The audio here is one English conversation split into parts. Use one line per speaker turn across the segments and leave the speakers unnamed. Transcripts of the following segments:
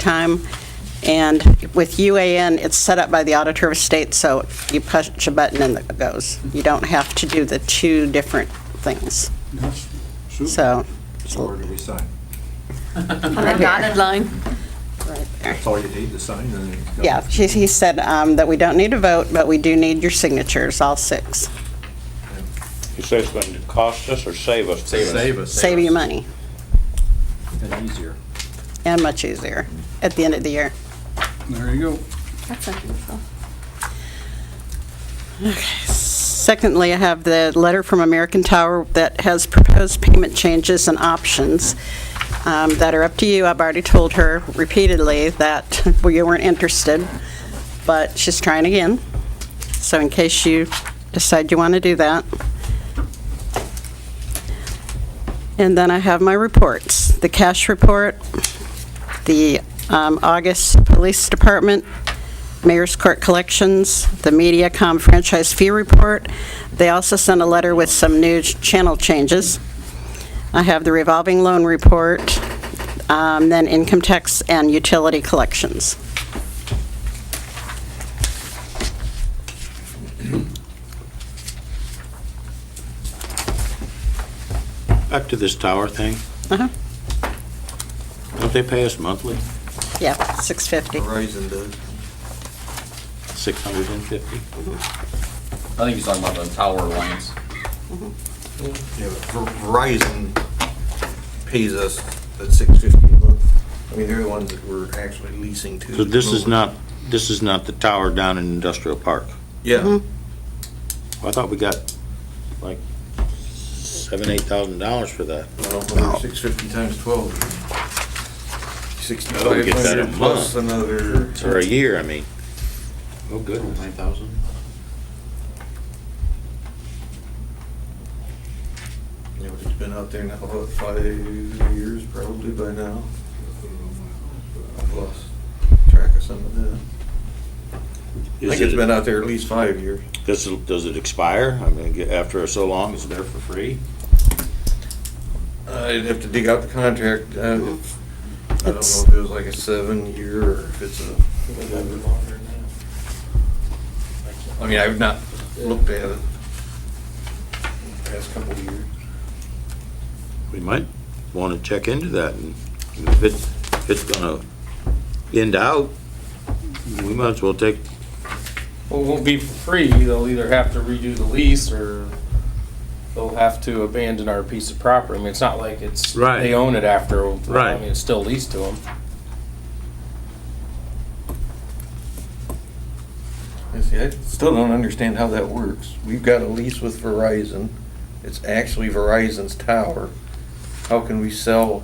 time. And with UAN, it's set up by the Auditor of State, so you push a button and it goes. You don't have to do the two different things.
Yes, sure.
So,
So where do we sign?
On a dotted line.
right there.
That's all you need to sign, and then you go.
Yeah, she- he said um, that we don't need a vote, but we do need your signatures, all six.
You say it's going to cost us or save us?
Save us.
Save you money,
And easier.
and much easier, at the end of the year.
There you go.
That's unusual.
Secondly, I have the letter from American Tower that has proposed payment changes and options um, that are up to you. I've already told her repeatedly that we weren't interested, but she's trying again. So in case you decide you want to do that. And then I have my reports, the cash report, the um, August Police Department, Mayor's Court Collections, the MediaCom franchise fee report. They also sent a letter with some new ch- channel changes. I have the revolving loan report, um, then income tax and utility collections.
Back to this tower thing.
Uh-huh.
Don't they pay us monthly?
Yeah, 650.
Verizon does.
650?
I think he's talking about the tower lines.
Yeah, but Ver- Verizon pays us at six fifty a month. I mean, they're the ones that we're actually leasing to.
So this is
Over.
not, this is not the tower down in Industrial Park?
Yeah,
Mm-hmm.
I thought we got like seven, eight thousand dollars for that.
six fifty times twelve.
Oh, we
Sixty-five
get that a
hundred plus another.
Or a year, I mean. Oh, good. Nine thousand?
Yeah, but it's been out there now, about five years probably by now. I've lost track of some of that. I think it's been out there at least five years.
Does, it- does it expire? I mean, get- after so long, it's there for free?
I'd Uh, have to dig out the contract. uh, if- I don't know if it was like a seven-year or if it's a. I mean, I've not looked at it the past couple of years.
We might want to check into that, and if it, if it's gonna end out, we might as well take,
Well, it won't be for free. They'll either have to redo the lease or they'll have to abandon our piece of property. I mean, it's not like it's,
Right.
they own it after.
Right.
I mean, it's still leased to them.
I see, I still don't understand how that works. We've got a lease with Verizon. It's actually Verizon's tower. How can we sell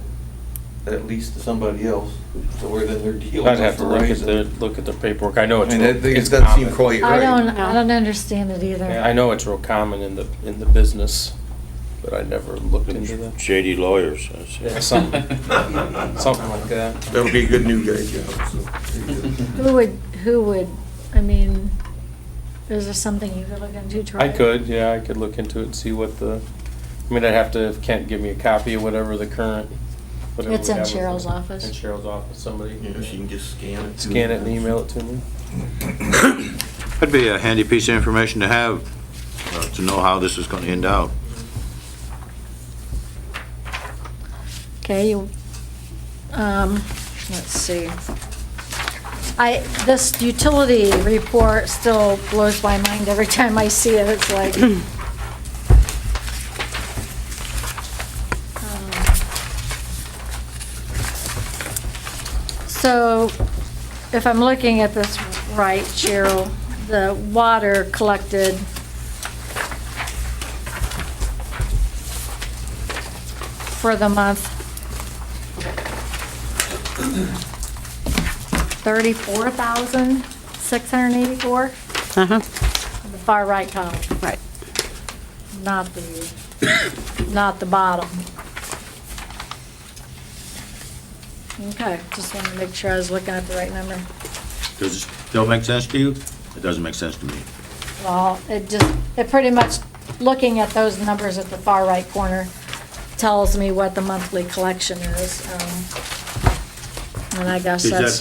that lease to somebody else? So we're then they're dealing with
I'd have to look at the,
Verizon.
look at the paperwork. I know
I
it's,
mean, that,
real-
that
it's
doesn't seem
common.
quite
I
right.
don't, I don't understand it either.
Yeah, I know it's real common in the, in the business, but I never looked into that.
shady lawyers. that's it.
Yeah, something, something like that.
That'll be a good new guy job, so. there you go.
Who would, who would, I mean, is there something you could look into? try
I
it?
could, yeah, I could look into it and see what the, I mean, I'd have to, if Kent give me a copy of whatever the current. whatever
It's
we
in
have with
Cheryl's
it.
office.
In Cheryl's office, somebody.
You know, she can just scan it.
Scan it and email it to me.
That'd be a handy piece of information to have, uh, to know how this is gonna end out.
Okay, you, um, let's see. I, this utility report still blows my mind every time I see it, it's like. So, if I'm looking at this right, Cheryl, the water collected, for the month. Thirty-four thousand, six hundred and eighty-four,
Uh-huh,
the far right column,
right.
not the, not the bottom. Okay, just wanted to make sure I was looking at the right number.
Does it still make sense to you? It doesn't make sense to me.
Well, it just, it pretty much, looking at those numbers at the far right corner tells me what the monthly collection is. um, And I guess
Is that
that's.